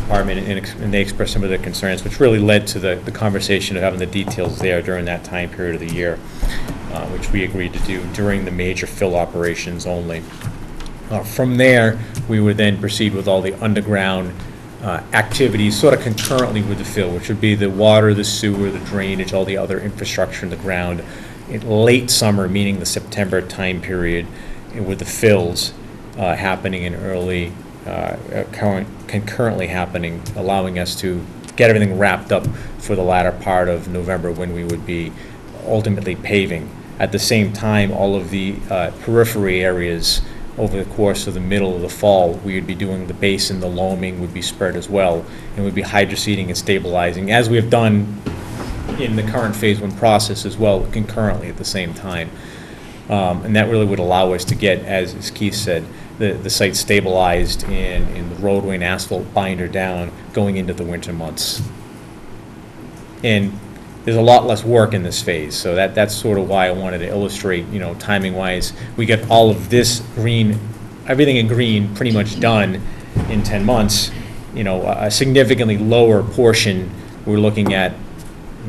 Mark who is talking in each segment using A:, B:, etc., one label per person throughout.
A: department, and ex- and they expressed some of their concerns, which really led to the the conversation of having the details there during that time period of the year, uh, which we agreed to do during the major fill operations only. Uh, From there, we would then proceed with all the underground uh, activities, sort of concurrently with the fill, which would be the water, the sewer, the drainage, all the other infrastructure in the ground, in late summer, meaning the September time period, eh, with the fills uh, happening in early, uh, uh, current- concurrently happening, allowing us to get everything wrapped up for the latter part of November, when we would be ultimately paving. At the same time, all of the uh, periphery areas over the course of the middle of the fall, we would be doing the basin, the loaming would be spread as well, and we'd be hydroseeding and stabilizing, as we have done in the current Phase One process as well, concurrently at the same time. Um, And that really would allow us to get, as as Keith said, the, the site stabilized and, and the roadway and asphalt binder down going into the winter months. And there's a lot less work in this phase, so that, that's sort of why I wanted to illustrate, you know, timing-wise. We got all of this green, everything in green pretty much done in 10 months. You know, a a significantly lower portion, we're looking at,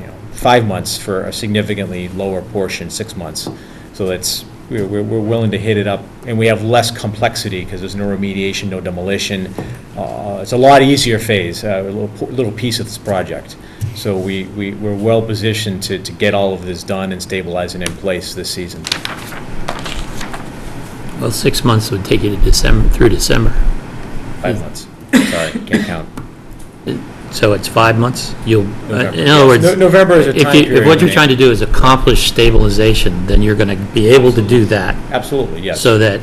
A: you know, five months for a significantly lower portion, six months. So that's, we're, we're we're willing to hit it up, and we have less complexity, because there's no remediation, no demolition. Uh, It's a lot easier phase, uh, a little, po- little piece of this project. So we, we, we're well-positioned to, to get all of this done and stabilize and in place this season.
B: Well, six months would take you to December, through December. Hmm.
A: Five months, sorry, can't count.
B: So it's five months? You'll, uh, in other
A: No-
B: words,
A: November is a time
B: if you,
A: period.
B: if what you're trying to do is accomplish stabilization, then you're going to be able to do that
A: Absolutely, yes.
B: so that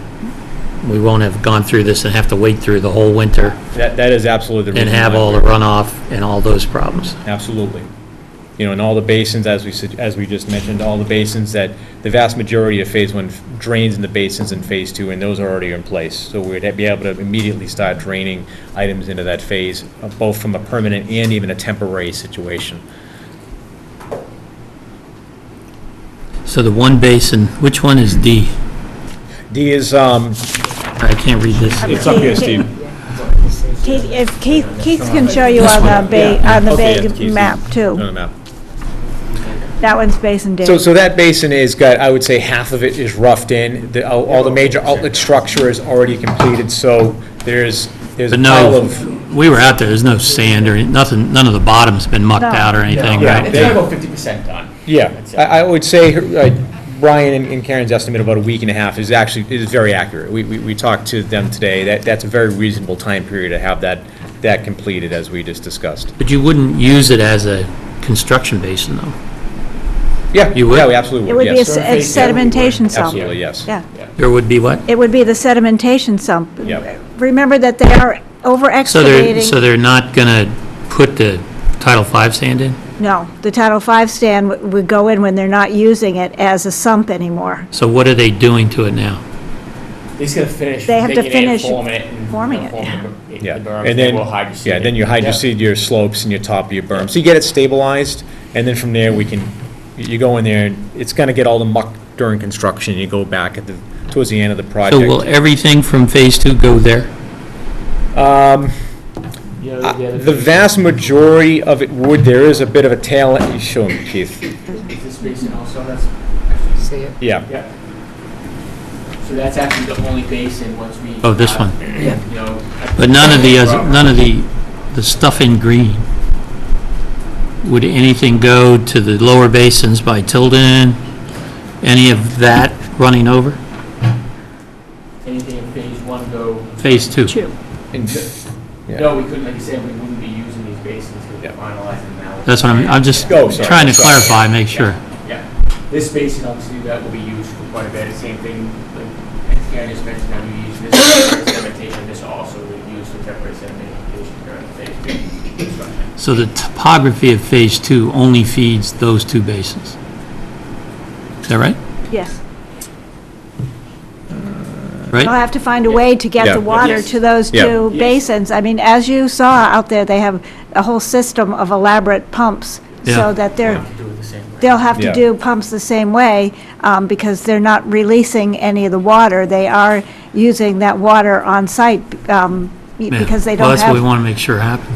B: we won't have gone through this and have to wait through the whole winter
A: That, that is absolutely the
B: and
A: reason.
B: have
A: why
B: all the
A: we're-
B: runoff and all those problems.
A: Absolutely. You know, and all the basins, as we, sug- as we just mentioned, all the basins that, the vast majority of Phase One drains in the basins in Phase Two, and those are already in place. So we'd be able to immediately start draining items into that phase, uh, both from a permanent and even a temporary situation.
B: So the one basin, which one is D?
A: D is, um,
B: I can't read this.
A: it's up here, Steve.
C: Keith, if Keith, Keith can show you on the big, on the
A: Okay, yeah,
C: big
A: Keith's-
C: map
A: On
C: too.
A: the map.
C: That one's Basin
A: So,
C: Dave.
A: so that basin is got, I would say half of it is roughed in, the, all all the major outlet structure is already completed, so there's, there's a
B: But
A: pile of.
B: no, we were out there, there's no sand or any- nothing, none of the bottom's been mucked
C: No.
B: out or anything,
A: Yeah.
B: right?
D: It's
A: they-
D: about fifty percent done.
A: Yeah, I, I would say, her- uh, Brian and- and Karen's estimate of about a week and a half is actually, is very accurate. We, we, we talked to them today, that, that's a very reasonable time period to have that, that completed, as we just discussed.
B: But you wouldn't use it as a construction basin, though?
A: Yeah,
B: You would?
A: yeah, we absolutely
C: It would be a
A: yes.
C: s- a sedimentation sump.
A: Absolutely, yes.
C: Yeah,
B: There would be what?
C: it would be the sedimentation sump.
A: Yep.
C: Remember that they are over
B: So they're, so
C: excavating.
B: they're not going to put the Title V sand in?
C: No, the Title V stand would- would go in when they're not using it as a sump anymore.
B: So what are they doing to it now?
D: They just gotta finish
C: They have to
D: digging it,
C: finish
D: forming it. and
C: forming it,
D: forming
C: yeah.
D: the-
A: Yeah,
D: the berm,
A: and then,
D: we'll hydroseed
A: yeah,
D: it.
A: then you hydroseed your slopes and your top of your berm. So you get it stabilized, and then from there, we can, you go in there, and it's gonna get all the muck during construction, you go back at the, towards the end of the
B: So will
A: project.
B: everything from Phase 2 go there?
A: Um,
D: Yeah, the
A: Uh,
D: other
A: The
D: thing-
A: vast majority of it would, there is a bit of a tail, you show me, Keith.
D: Is this basin also, that's,
E: See it?
A: Yeah,
D: yeah. So that's actually the only basin once we.
B: Oh, this one.
D: Yeah. You know.
B: But none of the, oth- none of the, the stuff in green? Would anything go to the lower basins by Tilden? Any of that running over?
D: Anything in phase one go,
B: Phase 2?
A: And- Yeah.
D: no, we couldn't, like you said, we wouldn't be using these basins because
A: Yeah.
D: we're finalizing now.
B: That's what I'm, I'm just
A: Go, sorry,
B: trying to
A: sorry.
B: clarify, make sure.
D: Yeah, this basin obviously that will be used for quite a bit, same thing, like, I think I just mentioned, how we use this for sedimentation, this also will be used for temporary sedimentation during phase two construction.
B: So the topography of Phase 2 only feeds those two basins? Is that right?
C: Yes.
B: Right? Uh,
C: They'll have to find a way to get
A: Yeah.
C: the water
D: Yes.
C: to those
A: Yeah.
C: two
D: Yes.
C: basins. I mean, as you saw out there, they have a whole system of elaborate pumps
B: Yeah.
C: so that they're
D: Have to do it the same way.
C: they'll have
A: Yeah.
C: to do pumps the same way, um, because they're not releasing any of the water. They are using that water on site, um,
B: Yeah.
C: because they
B: Well,
C: don't
B: that's what
C: have
B: we want to make sure happens.